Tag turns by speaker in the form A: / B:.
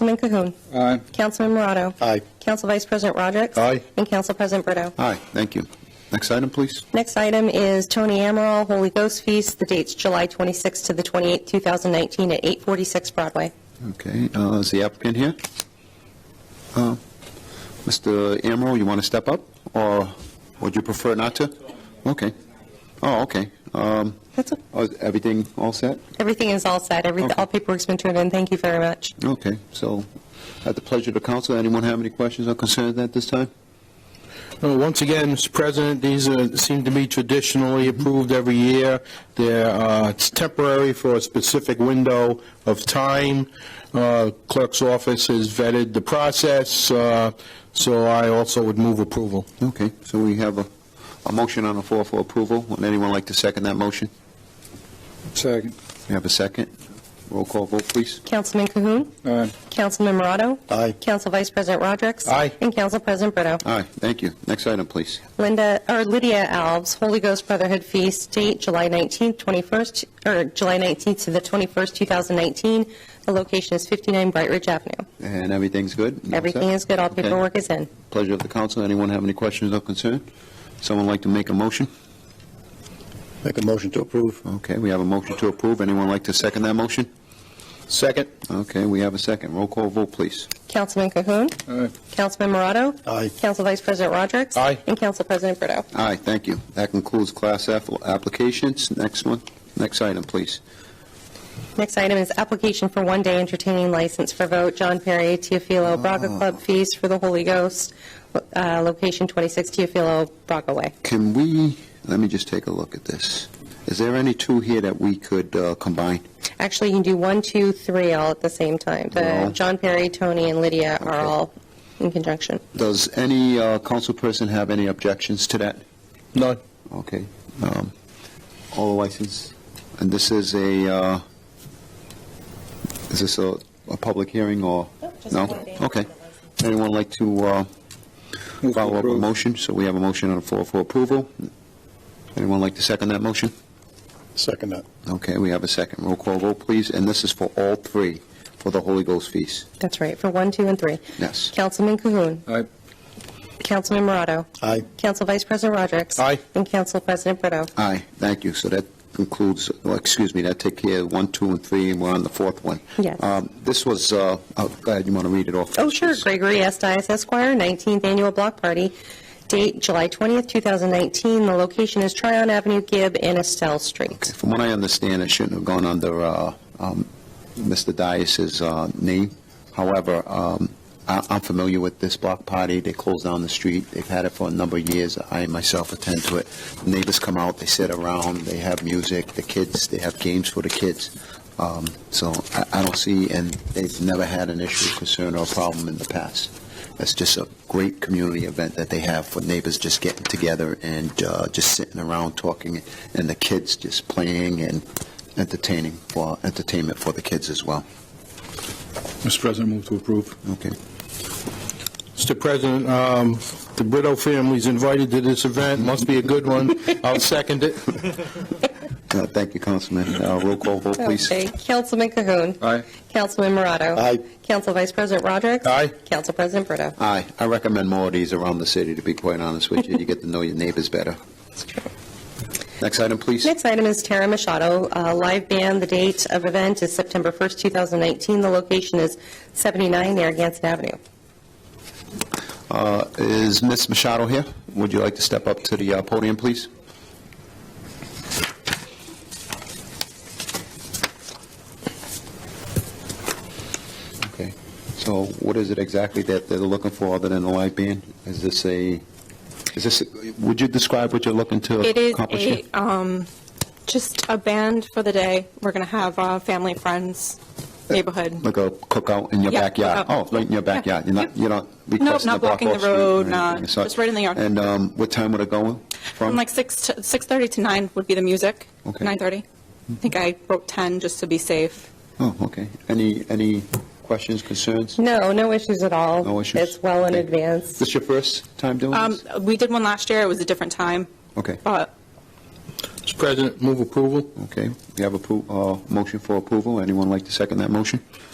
A: Councilman Cahoon.
B: Aye.
A: Councilman Morado.
B: Aye.
A: Council Vice President Rodrick.
B: Aye.
A: And Council President Brito.
B: Aye, thank you. Next item, please.
A: Next item is Tony Amaral, Holy Ghost Feast. The date's July 26th to the 28th, 2019, at 846 Broadway.
B: Okay, uh, is the applicant here? Uh, Mr. Amaral, you want to step up, or would you prefer not to? Okay. Oh, okay. Um,
A: That's, a-
B: oh, is Everything all set?
A: everything is all set. Every,
B: Okay.
A: all paperwork's been turned in. Thank you very much.
B: Okay, so at the pleasure of the council, anyone have any questions or concerns at this time?
C: Uh, Once again, Mr. President, these uh, seem to be traditionally approved every year. They're, uh, it's temporary for a specific window of time. Uh, Clerk's office has vetted the process, uh, so I also would move approval.
B: Okay, so we have a, a motion on the floor for approval. Would anyone like to second that motion?
D: Second.
B: We have a second. Roll call vote, please.
A: Councilman Cahoon.
D: Aye.
A: Councilman Morado.
B: Aye.
A: Council Vice President Rodrick.
C: Aye.
A: And Council President Brito.
B: Aye, thank you. Next item, please.
A: Linda, or Lydia Alves, Holy Ghost Brotherhood Feast, date July 19th, 21st, or July 19th to the 21st, 2019. The location is 59 Bright Ridge Avenue.
B: And everything's good? All set?
A: Everything is good, all
B: Okay.
A: paperwork is in.
B: Pleasure of the council. Anyone have any questions or concern? Someone like to make a motion?
D: Make a motion to approve.
B: Okay, we have a motion to approve. Anyone like to second that motion?
C: Second.
B: Okay, we have a second. Roll call vote, please.
A: Councilman Cahoon.
D: Aye.
A: Councilman Morado.
D: Aye.
A: Council Vice President Rodrick.
C: Aye.
A: And Council President Brito.
B: Aye, thank you. That concludes Class F applications. Next one, next item, please.
A: Next item is application for one-day entertaining license for vote, John Perry, Teofilo Braga Club Feast for the Holy Ghost, uh, location 26 Teofilo Braga Way.
B: Can we, let me just take a look at this. Is there any two here that we could uh, combine?
A: Actually, you can do one, two, three all at the same time.
B: No.
A: The John Perry, Tony, and Lydia are
B: Okay.
A: all in conjunction.
B: Does any uh, council person have any objections to that?
C: None.
B: Okay. um, All the license, and this is a, uh, is this a, a public hearing or? No? Okay. Anyone like to uh,
D: Move to
B: follow up a
D: approve.
B: motion? So we have a motion on the floor for approval. Anyone like to second that motion?
D: Second that.
B: Okay, we have a second. Roll call vote, please. And this is for all three, for the Holy Ghost feast.
A: That's right, for one, two, and three.
B: Yes.
A: Councilman Cahoon.
D: Aye.
A: Councilman Morado.
D: Aye.
A: Council Vice President Rodrick.
C: Aye.
A: And Council President Brito.
B: Aye, thank you. So that concludes, well, excuse me, that take care of one, two, and three, and we're on the fourth one.
A: Yes.
B: Um, This was, uh, oh, go ahead, you want to read it off?
A: Oh, sure,
B: please?
A: Gregory S. Dias Esquire, 19th Annual Block Party, date July 20th, 2019. The location is Tryon Avenue, Gibb, and Estelle Street.
B: From what I understand, it shouldn't have gone under uh, um, Mr. Dias's uh, name. However, um, I- I'm familiar with this block party. They closed down the street. They've had it for a number of years. I myself attend to it. Neighbors come out, they sit around, they have music, the kids, they have games for the kids. Um, So I- I don't see, and they've never had an issue, concern, or problem in the past. It's just a great community event that they have for neighbors just getting together and uh, just sitting around talking, and the kids just playing and entertaining for, entertainment for the kids as well.
D: Mr. President, move to approve.
B: Okay.
C: Mr. President, um, the Brito family's invited to this event, must be a good one. I'll second it.
B: Uh, Thank you, Councilman. Uh, Roll call vote, please.
A: Okay, Councilman Cahoon.
D: Aye.
A: Councilman Morado.
B: Aye.
A: Council Vice President Rodrick.
C: Aye.
A: Council President Brito.
B: Aye. I recommend more of these around the city, to be quite honest with you. You get to know your neighbors better. Next item, please.
A: Next item is Tara Machado, uh, live band. The date of event is September 1st, 2019. The location is 79 Narragansett Avenue.
B: Uh, Is Ms. Machado here? Would you like to step up to the uh, podium, please? Okay, so what is it exactly that they're looking for other than the live band? Is this a, is this, a- would you describe what you're looking to
E: It is
B: accomplish here?
E: a, um, just a band for the day. We're going to have uh, family, friends, neighborhood.
B: Like a cookout in your
E: Yeah,
B: backyard?
E: cookout.
B: Oh, right in your backyard? You're not,
E: Yep.
B: you're not
E: Nope,
B: requesting
E: not
B: to block
E: blocking
B: off
E: the
B: street or
E: road,
B: anything,
E: not-
B: so-
E: just right in the yard.
B: And um, what time would it go from?
E: From like 6 to 6:30 to 9 would be the music.
B: Okay.
E: 9:30. I think I wrote 10 just to be safe.
B: Oh, okay. Any, any questions, concerns?
A: No, no issues at all.
B: No issues?
A: It's well in
B: Okay.
A: advance.
B: This your first time doing
E: Um,
B: this?
E: we did one last year. It was a different time,
B: Okay,
E: but
C: Mr. President, move approval.
B: uh, okay. We have a motion for approval. Anyone like to second that motion?